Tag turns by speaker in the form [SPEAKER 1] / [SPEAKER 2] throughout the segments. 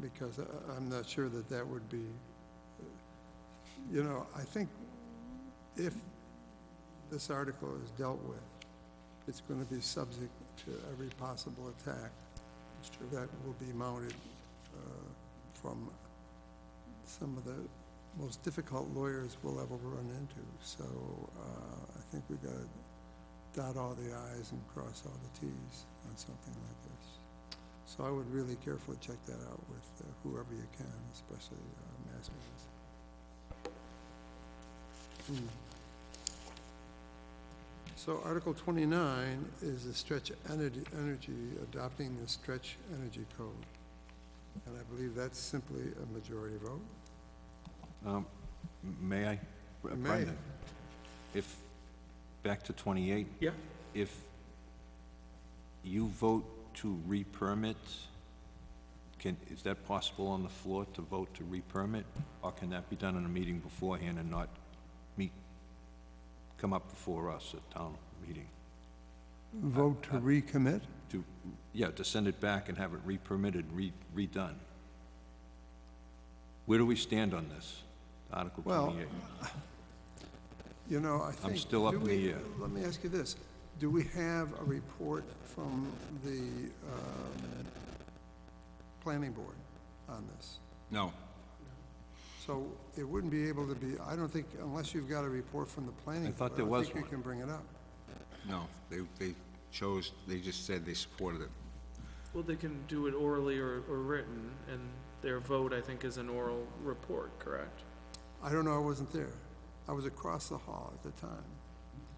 [SPEAKER 1] because I- I'm not sure that that would be, you know, I think if this article is dealt with, it's going to be subject to every possible attack that will be mounted uh, from some of the most difficult lawyers we'll ever run into. So uh, I think we got to dot all the i's and cross all the t's on something like this. So I would really carefully check that out with uh, whoever you can, especially uh, mass media. Hmm. So Article 29 is the stretch energy, energy, adopting the stretch energy code. And I believe that's simply a majority vote.
[SPEAKER 2] Um, May I?
[SPEAKER 1] You may.
[SPEAKER 2] Brendan, if, back to 28,
[SPEAKER 3] Yeah.
[SPEAKER 2] if you vote to re-permit, can, is that possible on the floor to vote to re-permit? Or can that be done in a meeting beforehand and not meet, come up before us at town meeting?
[SPEAKER 1] Vote to recommit?
[SPEAKER 2] To, yeah, to send it back and have it re-permitted, re- redone? Where do we stand on this, Article
[SPEAKER 1] Well,
[SPEAKER 2] 28?
[SPEAKER 1] You know, I think...
[SPEAKER 2] still up
[SPEAKER 1] do
[SPEAKER 2] in the
[SPEAKER 1] we-
[SPEAKER 2] air.
[SPEAKER 1] Let me ask you this. Do we have a report from the um, planning board on this?
[SPEAKER 2] No.
[SPEAKER 1] So it wouldn't be able to be, I don't think, unless you've got a report from the planning
[SPEAKER 2] I
[SPEAKER 1] board.
[SPEAKER 2] thought there
[SPEAKER 1] don't
[SPEAKER 2] was
[SPEAKER 1] think
[SPEAKER 2] one.
[SPEAKER 1] you can bring it up.
[SPEAKER 4] No, they, they chose, they just said they supported it.
[SPEAKER 3] Well, they can do it orally or, or written, and their vote, I think, is an oral report, correct?
[SPEAKER 1] I don't know, I wasn't there. I was across the hall at the time.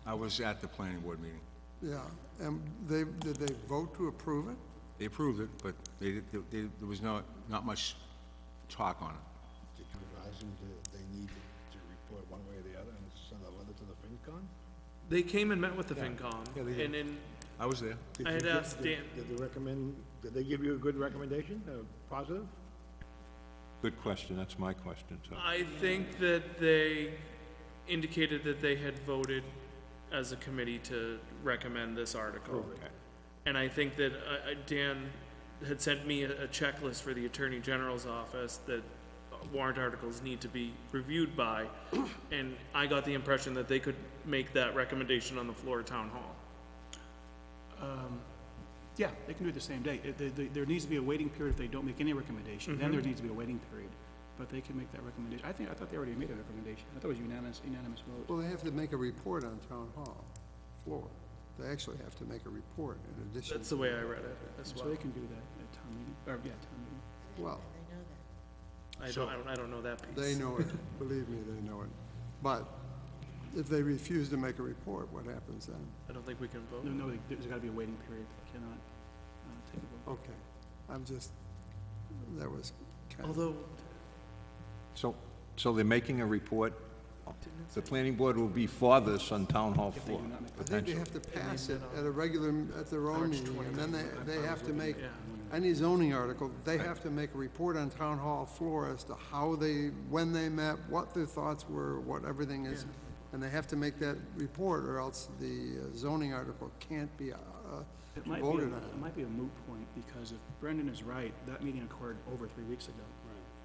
[SPEAKER 4] I was at the planning board meeting.
[SPEAKER 1] Yeah, and they, did they vote to approve it?
[SPEAKER 4] They approved it, but they, did- they, they- there was no, not much talk on it.
[SPEAKER 5] Did you advise them that they need to report one way or the other and send a letter to the FinCon?
[SPEAKER 3] They came and met with the FinCom,
[SPEAKER 4] Yeah, they did.
[SPEAKER 3] and then
[SPEAKER 4] I was there.
[SPEAKER 5] Did
[SPEAKER 3] I
[SPEAKER 5] you
[SPEAKER 3] had
[SPEAKER 5] get-
[SPEAKER 3] asked Dan,
[SPEAKER 5] Did they recommend, did they give you a good recommendation, a positive?
[SPEAKER 2] Good question, that's my question, too.
[SPEAKER 3] I think that they indicated that they had voted as a committee to recommend this article. And I think that, uh, uh, Dan had sent me a a checklist for the Attorney General's office that uh, warrant articles need to be reviewed by, and I got the impression that they could make that recommendation on the floor of town hall.
[SPEAKER 6] Yeah, they can do it the same day. It- they- they- There needs to be a waiting period if they don't make any recommendation,
[SPEAKER 1] Mm-hmm.
[SPEAKER 6] then there needs to be a waiting period. But they can make that recommendation. I think, I thought they already made a recommendation. I thought it was unanimous, unanimous vote.
[SPEAKER 1] Well, they have to make a report on town hall floor. They actually have to make a report in addition,
[SPEAKER 3] That's the way I read it as
[SPEAKER 6] So
[SPEAKER 3] well.
[SPEAKER 6] they can do that at town meeting, or, yeah, town meeting.
[SPEAKER 1] well,
[SPEAKER 3] I don't, I don't, I don't know that
[SPEAKER 1] they
[SPEAKER 3] piece.
[SPEAKER 1] know it, believe me, they know it. But if they refuse to make a report, what happens then?
[SPEAKER 3] I don't think we can vote.
[SPEAKER 6] No, no, there- there's gotta be a waiting period. They cannot uh, take a vote.
[SPEAKER 1] Okay, I'm just, that was kind of,
[SPEAKER 3] Although,
[SPEAKER 2] So, so they're making a report, the planning board will be for this on town hall floor,
[SPEAKER 1] I think they
[SPEAKER 2] potentially.
[SPEAKER 1] have to pass it at a regular, at their own meeting, and then they, they have to make,
[SPEAKER 3] yeah,
[SPEAKER 1] any zoning article, they have to make a report on town hall floor as to how they, when they met, what their thoughts were, what everything is. And they have to make that report, or else the uh, zoning article can't be uh,
[SPEAKER 6] It might be, a-
[SPEAKER 1] voted on.
[SPEAKER 6] it might be a moot point, because if Brendan is right, that meeting occurred over three weeks ago.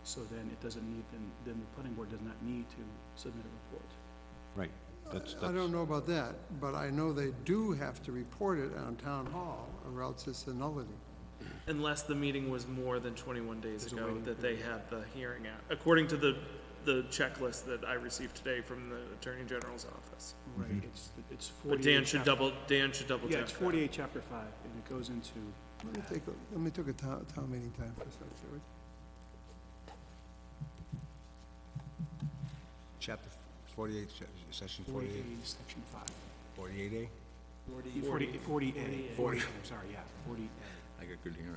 [SPEAKER 6] So then it doesn't need, then, then the planning board does not need to submit a report.
[SPEAKER 2] Right, that's,
[SPEAKER 1] I
[SPEAKER 2] that's,
[SPEAKER 1] don't know about that, but I know they do have to report it on town hall, or else it's a nullity.
[SPEAKER 3] unless the meeting was more than twenty-one days
[SPEAKER 6] There's a
[SPEAKER 3] ago
[SPEAKER 6] waiting
[SPEAKER 3] that they had the hearing at, according to the, the checklist that I received today from the Attorney General's office.
[SPEAKER 6] Right.
[SPEAKER 1] Mm-hmm.
[SPEAKER 6] It's, it's forty-eight.
[SPEAKER 3] But Dan should
[SPEAKER 6] chapter-
[SPEAKER 3] double, Dan should double
[SPEAKER 6] Yeah,
[SPEAKER 3] check
[SPEAKER 6] it's
[SPEAKER 3] that.
[SPEAKER 6] forty-eight, chapter five, and it goes into,
[SPEAKER 1] Let me take, a- let me take a town, town meeting time for a second. shall we?
[SPEAKER 4] Chapter forty-eight, se- section
[SPEAKER 6] 48,
[SPEAKER 4] forty-eight,
[SPEAKER 6] section 5.
[SPEAKER 4] forty-eight A?
[SPEAKER 6] 40 48. 40, I'm sorry, yeah, 40.
[SPEAKER 4] I got good hearing.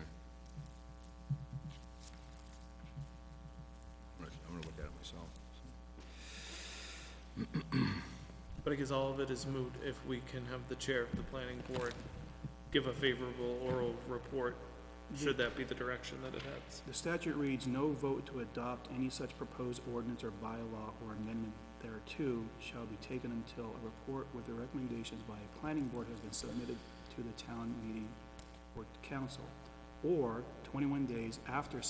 [SPEAKER 4] I'm gonna- I'm gonna look at it myself.
[SPEAKER 3] But I guess all of it is moot if we can have the chair of the planning board give a favorable oral report, should that be the direction that it heads.
[SPEAKER 6] The statute reads, "No vote to adopt any such proposed ordinance or bylaw or amendment thereto shall be taken until a report with the recommendations by a planning board has been submitted to the town meeting or council, or 21 days after